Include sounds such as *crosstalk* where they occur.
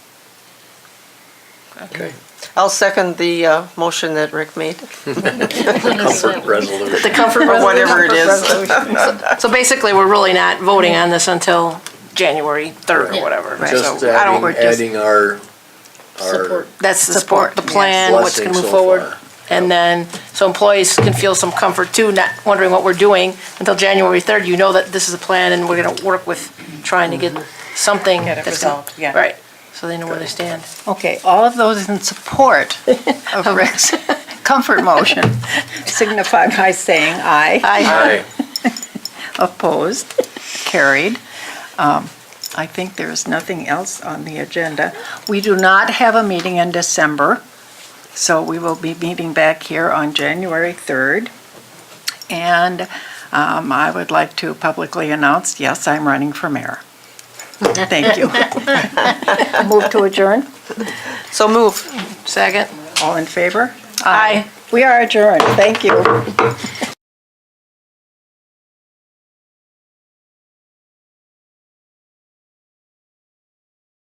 Okay. I'll second the uh, motion that Rick made, Comfort resolution. The *laughs* comfort or whatever it resolution. is. So basically, we're really not voting on this until January 3rd or Yeah. whatever. Just So I don't. adding, we're just- adding our, our Support. That's the support, the Support, yes. plan, what's blessing going to so move forward. far. And then, so employees can feel some comfort too, not wondering what we're doing until January 3rd. You know that this is a plan and we're going to work with trying to get something. Get a that's gonna- result, yeah. Right, so they know where they stand. Okay, all of those in support *laughs* of Rick's comfort motion signify by saying aye. Aye. Opposed? Carried. Um, I think there is nothing else on the agenda. We do not have a meeting in December, so we will be meeting back here on January 3rd. And um, I would like to publicly announce, yes, I'm running for mayor. Thank *laughs* you. Move to adjourn? *laughs* So move. Second? All in favor? Aye. We are adjourned. Thank you.